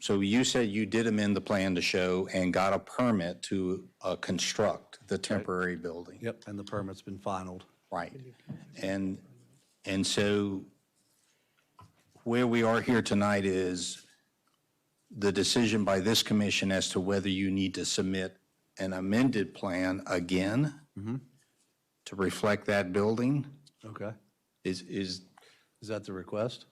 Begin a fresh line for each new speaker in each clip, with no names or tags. So you said you did amend the plan to show and got a permit to uh, construct the temporary building.
Yep, and the permit's been finalized.
Right. And, and so where we are here tonight is the decision by this commission as to whether you need to submit an amended plan again
Mm-hmm.
to reflect that building?
Okay.
Is, is,
Is that the request?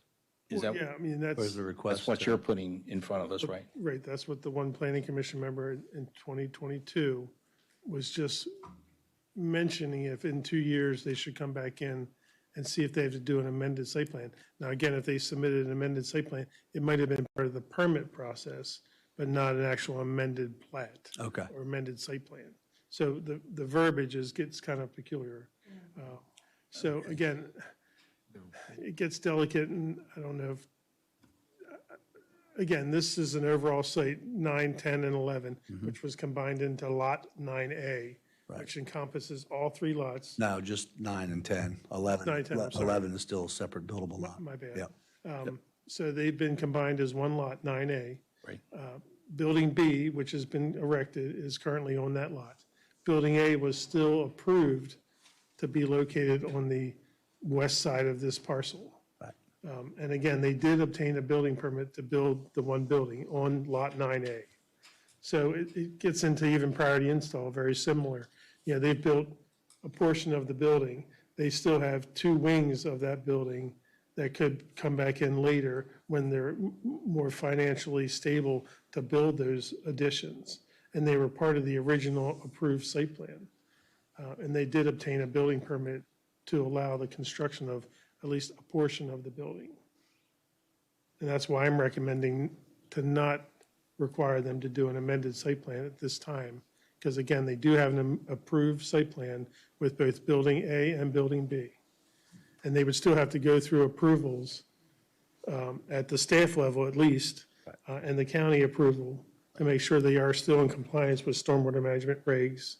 is
Well,
that,
Yeah, I mean,
Or is the
that's,
that's
request?
what you're putting in front of us, right?
right, that's what the one planning commission member in- in 2022 was just mentioning if in two years they should come back in and see if they have to do an amended site plan. Now, again, if they submitted an amended site plan, it might have been part of the permit process, but not an actual amended plat.
Okay.
Or amended site plan. So the, the verbiage is, gets kind of peculiar. Uh, So again, it gets delicate and I don't know if, uh, again, this is an overall site, nine, 10, and 11, which was combined into lot 9A, which encompasses all three lots.
No, just nine and 10. 11.
Nine, 10, I'm sorry.
11 is still a separate buildable lot.
My bad. Um,
Yep.
So they've been combined as one lot, 9A.
Right.
Building B, which has been erected, is currently on that lot. Building A was still approved to be located on the west side of this parcel.
Right.
Um, And again, they did obtain a building permit to build the one building on Lot 9A. So it, it gets into even prior to install, very similar. You know, they've built a portion of the building. They still have two wings of that building that could come back in later when they're m- m- more financially stable to build those additions. And they were part of the original approved site plan. Uh, And they did obtain a building permit to allow the construction of at least a portion of the building. And that's why I'm recommending to not require them to do an amended site plan at this time. Because again, they do have an am- approved site plan with both Building A and Building B. And they would still have to go through approvals um, at the staff level at least, uh, and the county approval to make sure they are still in compliance with stormwater management regs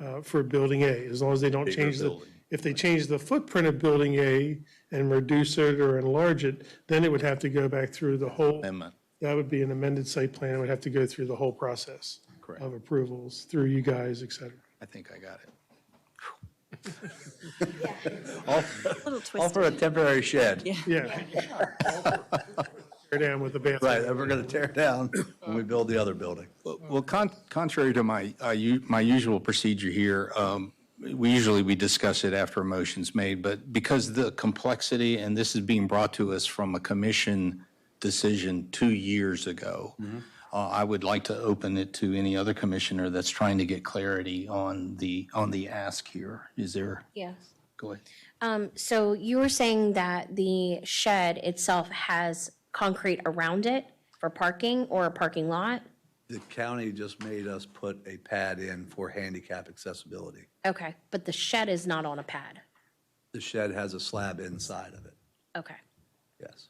uh, for Building A, as long as they don't change the,
building.
if they change the footprint of Building A and reduce it or enlarge it, then it would have to go back through the whole.
Amendment.
That would be an amended site plan, it would have to go through the whole process
Correct.
of approvals, through you guys, et cetera.
I think I got it.
Little
All for a
twisted.
temporary shed.
Yeah. Tear down with the bathroom.
Right, and we're going to tear it down when we build the other building.
Well, con- contrary to my, uh, u- my usual procedure here, um, we usually, we discuss it after a motion's made, but because the complexity, and this is being brought to us from a commission decision two years ago, uh, I would like to open it to any other commissioner that's trying to get clarity on the, on the ask here. Is there,
Yeah.
go ahead.
So you were saying that the shed itself has concrete around it for parking or a parking lot?
The county just made us put a pad in for handicap accessibility.
Okay, but the shed is not on a pad?
The shed has a slab inside of it,
Okay,
yes.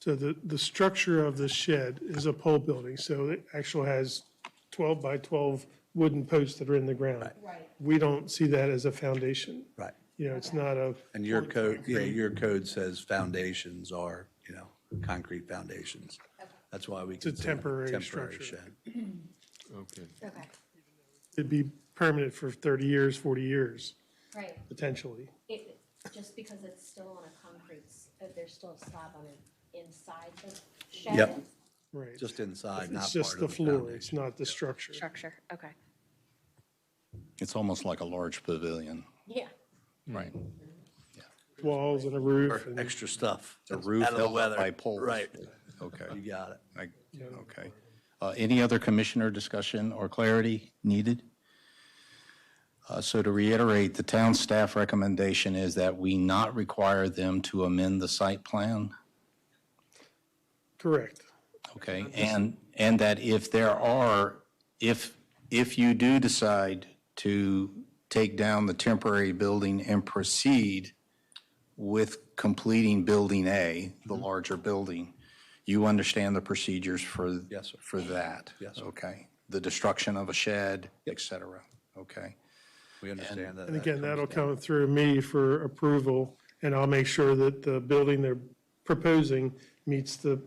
So the, the structure of the shed is a pole building, so it actually has 12 by 12 wooden posts that are in the ground. Right. We don't see that as a foundation.
Right.
You know, it's not a,
And your code, yeah, your code says foundations are, you know, concrete foundations. That's why we. It's
a temporary structure.
Okay.
okay,
it'd be permanent for 30 years, 40 years,
right.
potentially.
It, just because it's still on a concrete, uh, there's still a slab on it inside the shed?
Yep.
Right.
Just inside, not
It's
part
just
of the
the floor, it's
foundation.
not the structure.
Structure, okay.
It's almost like a large pavilion,
Yeah.
right?
Walls and a roof.
Or
and-
Extra stuff.
The roof
Out of the
held up
weather.
by poles.
Right,
Okay.
you got it.
I- Okay. Uh, Any other commissioner discussion or clarity needed? Uh, So to reiterate, the town staff recommendation is that we not require them to amend the site plan,
Correct.
okay? And, and that if there are, if, if you do decide to take down the temporary building and proceed with completing Building A, the
Mm-hmm.
larger building, you understand the procedures for?
Yes, sir.
For that?
Yes, sir.
Okay. The destruction of a shed, et cetera. Okay.
We understand that.
And again, that'll come through me for approval, and I'll make sure that the building they're proposing meets the